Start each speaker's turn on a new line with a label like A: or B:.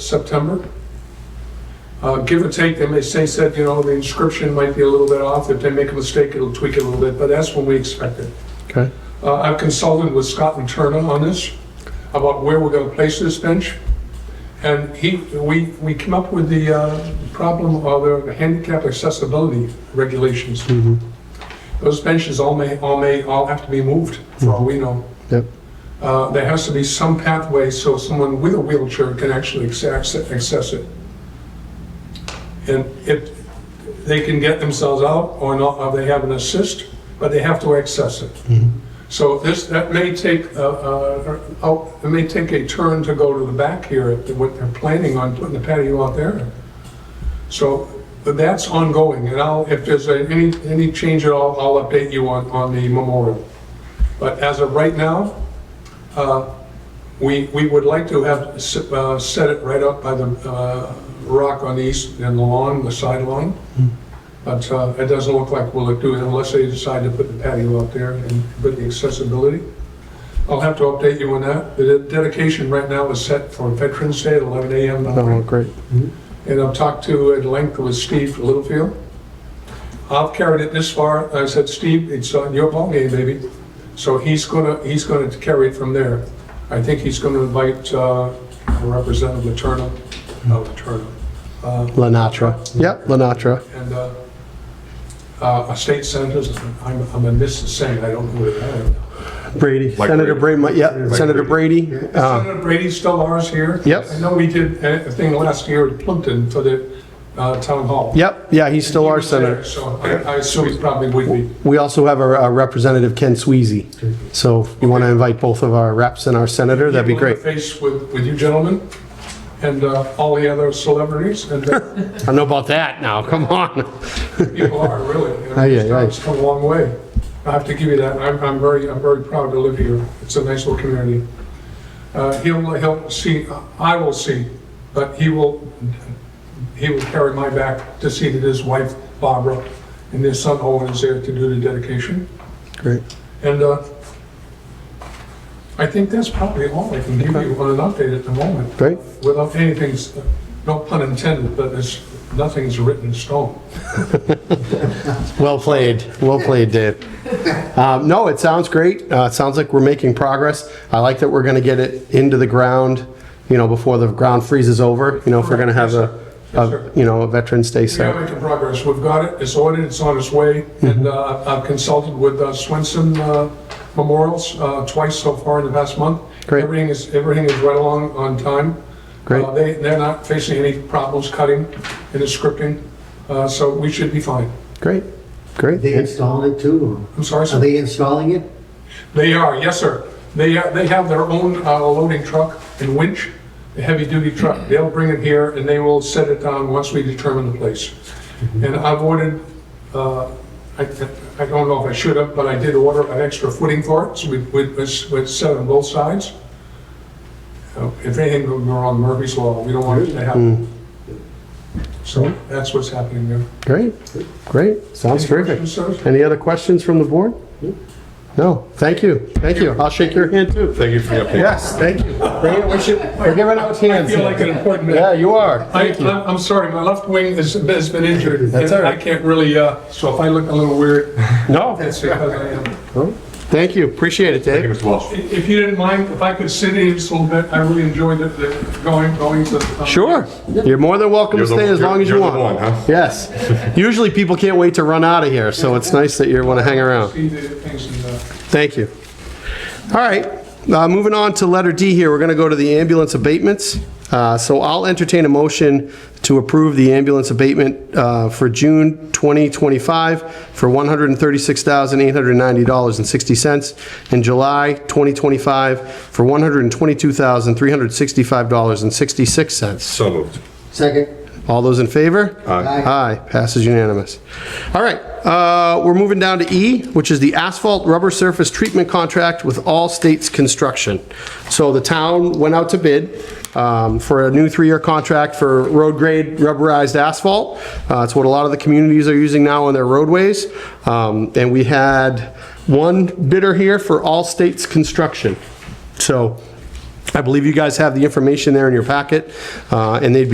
A: September. Uh, Give or take, they may say, said, you know, the inscription might be a little bit off. If they make a mistake, it'll tweak it a little bit, but that's when we expect it.
B: Okay.
A: Uh, I've consulted with Scott and Turner on this, about where we're gonna place this bench. And he, we, we came up with the uh, problem of the handicap accessibility regulations.
B: Mhm.
A: Those benches all may, all may, all have to be moved, for all we know.
B: Yep.
A: Uh, There has to be some pathway so someone with a wheelchair can actually access access it. And if, they can get themselves out or not, or they have an assist, but they have to access it. So this, that may take, uh, uh, out- it may take a turn to go to the back here, at what they're planning on putting the patio out there. So but that's ongoing, and I'll, if there's a- any, any change at all, I'll update you on, on the memorial. But as of right now, uh, we, we would like to have s- uh, set it right up by the uh, rock on the east and the lawn, the side lawn. But uh, it doesn't look like we'll do it unless they decide to put the patio up there and put the accessibility. I'll have to update you on that. The de- dedication right now is set for Veterans Day at 11 a.m.
B: Oh, great.
A: And I've talked to at length with Steve Littlefield. I've carried it this far. I said, Steve, it's on your ballgame, baby. So he's gonna, he's gonna carry it from there. I think he's gonna invite uh, Representative Letourneau, no, Letourneau, uh,
B: Lenatra. Yep, Lenatra.
A: and uh, uh, a state senator, I'm, I'm a saying, I don't know who they are.
B: Brady.
C: Mike
B: Senator Brady.
C: Brady.
B: Yep,
C: Mike
B: Senator Brady. Uh,
A: Senator Brady still ours here?
B: Yep.
A: I know we did a a thing last year at Plimpton for the uh, town hall.
B: Yep, yeah, he's still our senator.
A: So I I assume he probably would be.
B: We also have our uh, Representative Ken Sweezy. So if you want to invite both of our reps and our senator, that'd be great.
A: Face with, with you gentlemen and uh, all the other celebrities and uh,
B: I don't know about that now, come on.
A: people are really. you know,
B: Aye, aye,
A: it's come- It's come a long way. I have to give you that. I'm, I'm very, I'm very proud to live here. It's a nice little community. Uh, He'll, he'll see, I will see, but he will, he will carry my back to see that his wife Barbara and their son Owen is there to do the dedication.
B: Great.
A: And uh, I think that's probably all I can give you on an update at the moment.
B: Great.
A: Without anything, no pun intended, but it's, nothing's written in stone.
B: Well played, well played, Dave. Um, No, it sounds great. Uh, It sounds like we're making progress. I like that we're going to get it into the ground, you know, before the ground freezes over, you know, if we're going to have a,
A: Yes, sir.
B: a, you know, a Veterans Day
A: We are
B: ceremony.
A: making progress. We've got it, it's ordered, it's on its way,
B: Mm-hmm.
A: and uh, I've consulted with uh, Swenson uh, Memorials uh, twice so far in the past month.
B: Great.
A: Everything is, everything is right along on time.
B: Great.
A: Uh, They, they're not facing any problems cutting and scripting, uh, so we should be fine.
B: Great,
D: Are they
B: great.
D: installing it too?
A: I'm sorry,
D: Are
A: sir.
D: they installing it?
A: They are, yes, sir. They, uh, they have their own uh, loading truck and winch, a heavy-duty truck. They'll bring it here and they will set it down once we determine the place. And I've ordered, uh, I I don't know if I should have, but I did order an extra footing for it, so we, we- it's it's set on both sides. Uh, If anything goes wrong, Murphy's Law, we don't want it to happen. So that's what's happening there.
B: Great, great, sounds
A: Any
B: terrific.
A: questions, sir?
B: Any other questions from the board? No, thank you, thank you. I'll shake your hand too.
C: Thank you for the update.
B: Yes, thank you. Bring it, we should- We're giving out
A: I
B: hands.
A: feel like an
B: here.
A: important man.
B: Yeah, you are.
A: I, I'm I'm sorry, my left wing has, has been injured.
B: That's all right.
A: I can't really, uh, so if I look a little weird,
B: No,
A: that's because I am.
B: thank you, appreciate it,
C: Thank you,
B: Dave.
C: Mr. Walsh.
A: If you didn't mind, if I could sit in just a little bit, I really enjoyed the- the going, going to. um,
B: Sure, you're more than welcome to
C: You're the-
B: stay as long as
C: you're-
B: you
C: you're the
B: want.
C: one, huh?
B: Yes, usually people can't wait to run out of here, so it's nice that you want to hang around.
A: See the things and, uh,
B: Thank you. All right, uh, moving on to letter D here, we're going to go to the ambulance abatements. Uh, So I'll entertain a motion to approve the ambulance abatement uh, for June 2025 for $136,890.60 and July 2025 for $122,365.66.
C: So moved.
D: Second.
B: All those in favor?
C: Aye.
B: Aye, passes unanimous. All right, uh, we're moving down to E, which is the asphalt rubber surface treatment contract with All States Construction. So the town went out to bid um, for a new three-year contract for road grade rubberized asphalt. Uh, It's what a lot of the communities are using now on their roadways. Um, And we had one bidder here for All States Construction. So I believe you guys have the information there in your packet, uh, and they'd be